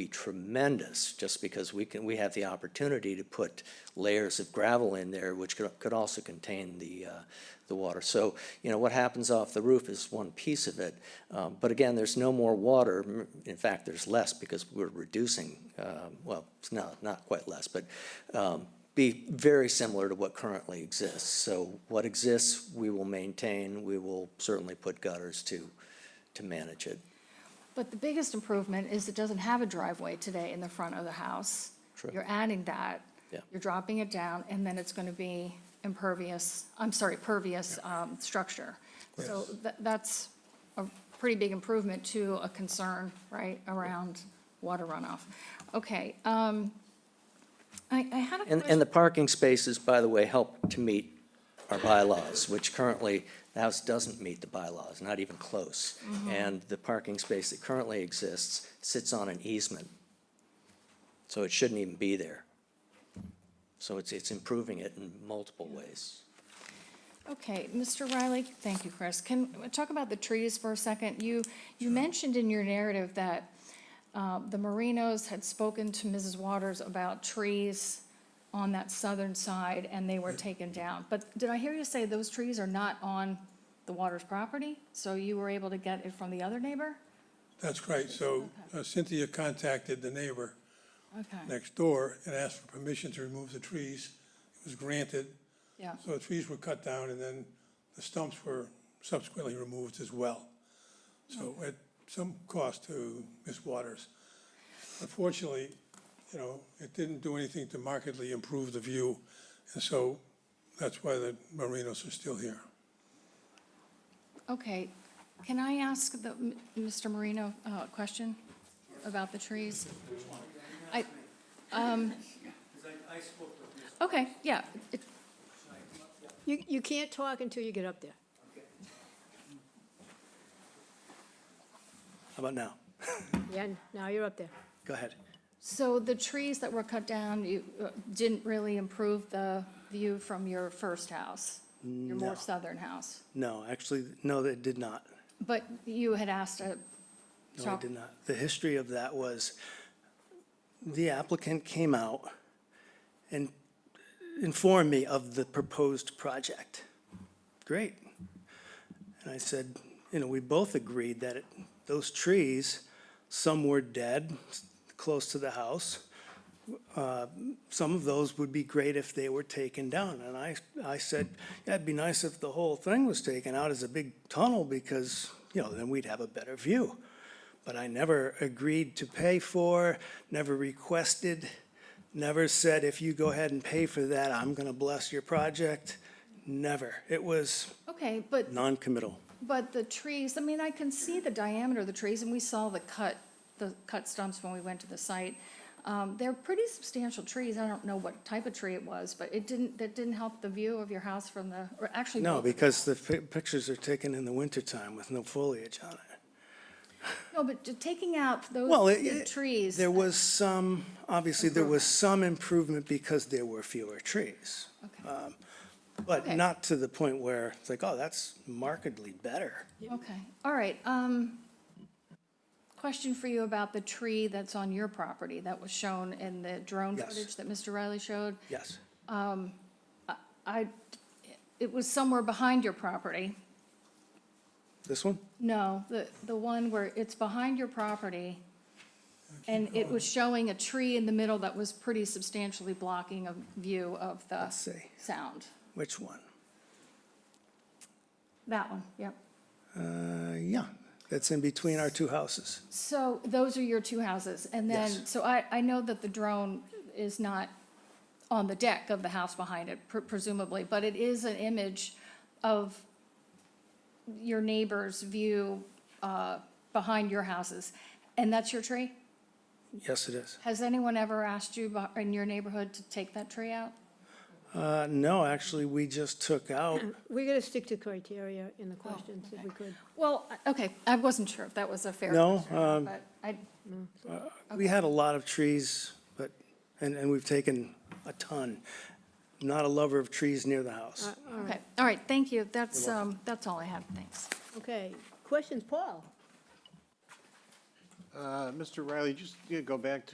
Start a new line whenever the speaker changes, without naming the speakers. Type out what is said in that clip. be tremendous, just because we can, we have the opportunity to put layers of gravel in there, which could, could also contain the, uh, the water. So, you know, what happens off the roof is one piece of it, um, but again, there's no more water. M- In fact, there's less because we're reducing, um, well, it's not, not quite less, but, um, be very similar to what currently exists. So what exists, we will maintain, we will certainly put gutters to, to manage it.
But the biggest improvement is it doesn't have a driveway today in the front of the house.
True.
You're adding that.
Yeah.
You're dropping it down, and then it's gonna be impervious, I'm sorry, pervious, um, structure. So tha- that's a pretty big improvement to a concern, right, around water runoff. Okay, um, I, I had a
And,
question.
and the parking spaces, by the way, help to meet our bylaws, which currently, the house doesn't meet the bylaws, not even close.
Mm-hmm.
And the parking space that currently exists sits on an easement. So it shouldn't even be there. So it's, it's improving it in multiple ways.
Okay, Mr. Riley, thank you, Chris. Can we talk about the trees for a second? You, you mentioned in your narrative that uh, the Merinos had spoken to Mrs. Waters about trees on that southern side, and they were taken down. But did I hear you say those trees are not on the Waters property? So you were able to get it from the other neighbor?
That's right. So uh, Cynthia contacted the neighbor
Okay,
next door and asked for permission to remove the trees. It was granted.
yeah,
So the trees were cut down and then the stumps were subsequently removed as well. So at some cost to Miss Waters. Unfortunately, you know, it didn't do anything to markedly improve the view. And so that's why the Merinos are still here.
okay. Can I ask the, m- Mr. Marino uh, a question about the trees? I, um,
Because I, I spoke with Ms.
okay, yeah, it-
You, you can't talk until you get up there.
How about now?
Yeah, now you're up there.
Go ahead.
So the trees that were cut down, you uh, didn't really improve the view from your first house, your more southern house?
No, actually, no, it did not.
But you had asked a.
No, it did not. The history of that was the applicant came out and informed me of the proposed project. Great. And I said, you know, we both agreed that it- those trees, some were dead, s- close to the house. Uh, Some of those would be great if they were taken down. And I, I said, yeah, it'd be nice if the whole thing was taken out as a big tunnel because, you know, then we'd have a better view. But I never agreed to pay for, never requested, never said, if you go ahead and pay for that, I'm gonna bless your project. Never. It was
Okay, but,
non-committal.
but the trees, I mean, I can see the diameter of the trees, and we saw the cut, the cut stumps when we went to the site. Um, They're pretty substantial trees. I don't know what type of tree it was, but it didn't, that didn't help the view of your house from the, or actually.
No,
both of
because the pi- pictures are taken in the wintertime with no foliage on it.
No, but t- taking out those
Well, it-
big
it-
trees. uh,
There was some, obviously, there was some improvement because there were fewer trees.
Okay.
But
Okay.
not to the point where it's like, oh, that's markedly better.
Okay, all right. um, Question for you about the tree that's on your property that was shown in the drone
Yes.
footage that Mr. Riley showed.
Yes.
I, it was somewhere behind your property.
This one?
No, the, the one where it's behind your property. And it was showing a tree in the middle that was pretty substantially blocking a view of the
see.
sound.
Which one?
That one, yep.
Uh, yeah, that's in between our two houses.
So those are your two houses, and then,
Yes.
so I, I know that the drone is not on the deck of the house behind it pre- presumably, but it is an image of your neighbor's view uh, behind your houses, and that's your tree?
Yes, it is.
Has anyone ever asked you about- in your neighborhood to take that tree out?
Uh, no, actually, we just took out,
We're gonna stick to criteria in the Oh, questions if we could.
Well, I- okay, I wasn't sure if that was a fair
No,
question, or not, but I,
we had a lot of trees, but, and, and we've taken a ton. Not a lover of trees near the house.
okay, all right, thank you, that's, um, that's all I have, thanks.
Okay, questions, Paul?
Uh, Mr. Riley, just yeah, go back to